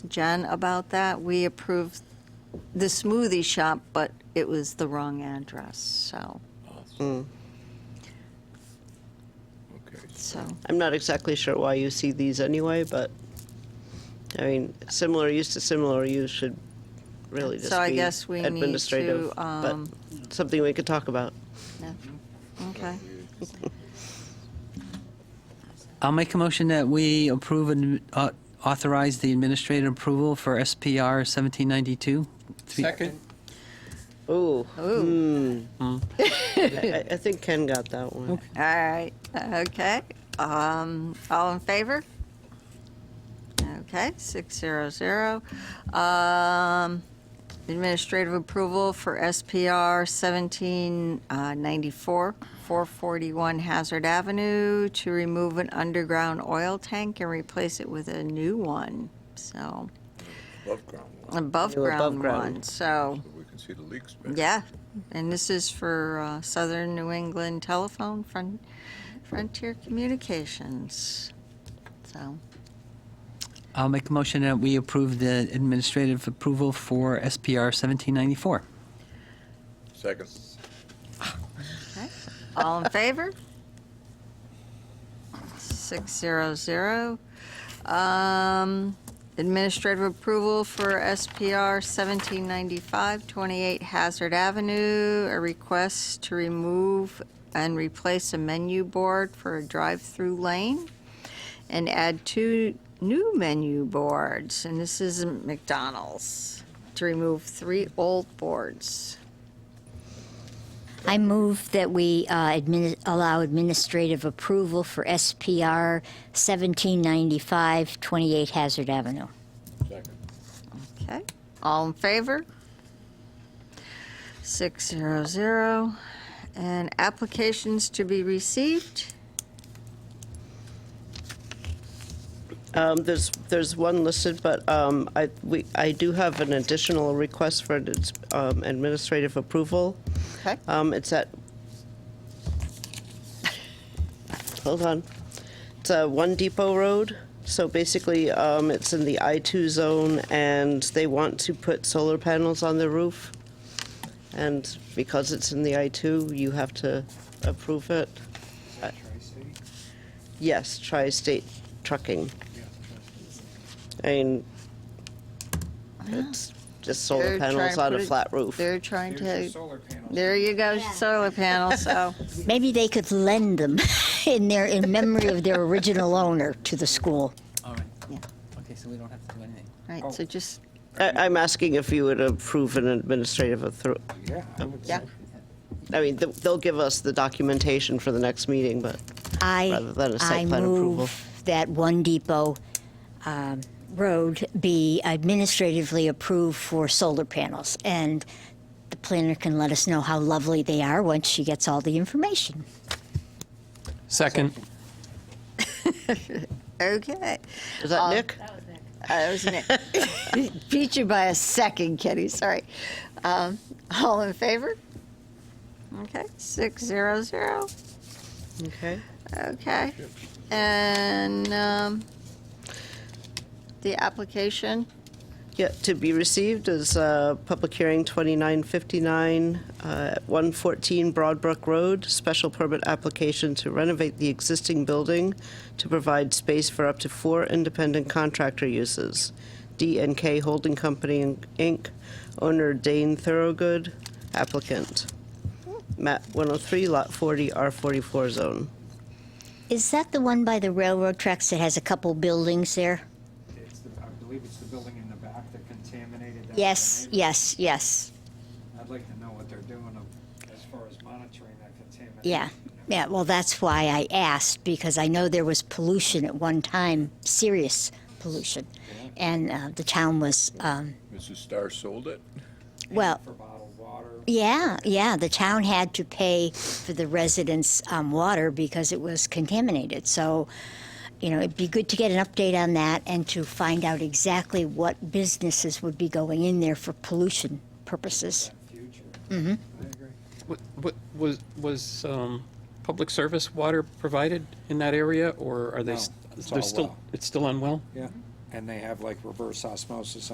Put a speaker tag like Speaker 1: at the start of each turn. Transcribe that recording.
Speaker 1: Jen about that. We approved the smoothie shop, but it was the wrong address, so,
Speaker 2: Okay.
Speaker 1: so.
Speaker 3: I'm not exactly sure why you see these anyway, but, I mean, similar use to similar use should really just
Speaker 1: So I
Speaker 3: be
Speaker 1: guess we need
Speaker 3: administrative,
Speaker 1: to,
Speaker 3: but
Speaker 1: um,
Speaker 3: something we could talk about.
Speaker 1: yeah. Okay.
Speaker 4: I'll make a motion that we approve and uh, authorize the administrative approval for SPR 1792. Three-
Speaker 2: Second,
Speaker 3: Ooh,
Speaker 1: Ooh,
Speaker 3: Hmm. I, I think Ken got that one.
Speaker 1: all right, okay. Um, all in favor? Okay, six zero zero. Um, administrative approval for SPR seventeen uh, ninety-four, four forty-one Hazard Avenue to remove an underground oil tank and replace it with a new one, so,
Speaker 2: above ground one,
Speaker 1: Um, above-ground
Speaker 3: above-ground.
Speaker 1: one, so.
Speaker 2: so we can see the leaks better.
Speaker 1: Yeah, and this is for uh, Southern New England Telephone Fron- Frontier Communications. So,
Speaker 4: I'll make a motion that we approve the administrative approval for SPR 1794.
Speaker 2: Second,
Speaker 1: okay. all in favor? Six zero zero. Um, administrative approval for SPR seventeen ninety-five twenty-eight Hazard Avenue. A request to remove and replace a menu board for a drive-through lane. and add two new menu boards, and this is McDonald's, to remove three old boards.
Speaker 5: I move that we uh, admini- allow administrative approval for SPR 1795, 28 Hazard Avenue.
Speaker 2: second,
Speaker 1: Okay, all in favor? Six zero zero, and applications to be received.
Speaker 3: Um, there's, there's one listed, but, um, I, we, I do have an additional request for its, um, administrative approval.
Speaker 1: Okay.
Speaker 3: Um, it's at, hold on. It's uh, One Depot Road. So basically, um, it's in the I-2 zone, and they want to put solar panels on the roof. And because it's in the I-2, you have to approve it. Yes, Tri-State Trucking. I mean, it's just solar
Speaker 1: They're trying
Speaker 3: panels
Speaker 1: to
Speaker 3: on
Speaker 1: put
Speaker 3: a
Speaker 1: it-
Speaker 3: flat roof.
Speaker 1: They're trying
Speaker 6: There's
Speaker 1: to,
Speaker 6: solar panels.
Speaker 1: there you go,
Speaker 5: Yeah.
Speaker 1: solar panel, so,
Speaker 5: Maybe they could lend them in their, in memory of their original owner to the school.
Speaker 4: All right.
Speaker 1: Yeah.
Speaker 4: Okay, so we don't have to do anything.
Speaker 6: Oh.
Speaker 1: right, so just,
Speaker 3: I- I'm asking if you would approve an administrative, author-
Speaker 6: Yeah, I would
Speaker 1: yeah,
Speaker 6: say.
Speaker 3: I mean, th- they'll give us the documentation for the next meeting, but Rather
Speaker 5: I,
Speaker 3: than a site
Speaker 5: I
Speaker 3: plan approval.
Speaker 5: move that One Depot um, Road be administratively approved for solar panels. And the planner can let us know how lovely they are once she gets all the information.
Speaker 4: Second.
Speaker 1: okay.
Speaker 3: is that Nick?
Speaker 1: I was Nick. Beat you by a second, Kitty. Sorry. Um, all in favor? Okay, six zero zero.
Speaker 3: Okay.
Speaker 1: Okay, and um, the application.
Speaker 3: Yeah, to be received is uh, Public Hearing 2959, uh, at 114 Broadbrook Road, special permit application to renovate the existing building to provide space for up to four independent contractor uses. D and K Holding Company, Inc., owner Dane Thoroughgood, applicant. Map 103, Lot 40, R44 zone.
Speaker 5: Is that the one by the railroad tracks that has a couple buildings there?
Speaker 6: It's the, I believe it's the building in the back that contaminated. that
Speaker 5: Yes,
Speaker 6: tornado.
Speaker 5: yes, yes.
Speaker 6: I'd like to know what they're doing of- as far as monitoring that contamination.
Speaker 5: Yeah, yeah. Well, that's why I asked because I know there was pollution at one time, serious pollution, and uh, the town was um,
Speaker 2: Mrs. Starr sold it?
Speaker 5: well.
Speaker 6: For bottled water.
Speaker 5: Yeah, yeah. The town had to pay for the residents' um, water because it was contaminated. So, you know, it'd be good to get an update on that and to find out exactly what businesses would be going in there for pollution purposes.
Speaker 6: Future.
Speaker 5: Mm-hmm.
Speaker 6: I agree.
Speaker 7: Wa- wa- Was, was um, public service water provided in that area, or are they, s-
Speaker 6: No, it's all
Speaker 7: they're still,
Speaker 6: well.
Speaker 7: it's still unwell?
Speaker 6: Yeah. and they have like reverse osmosis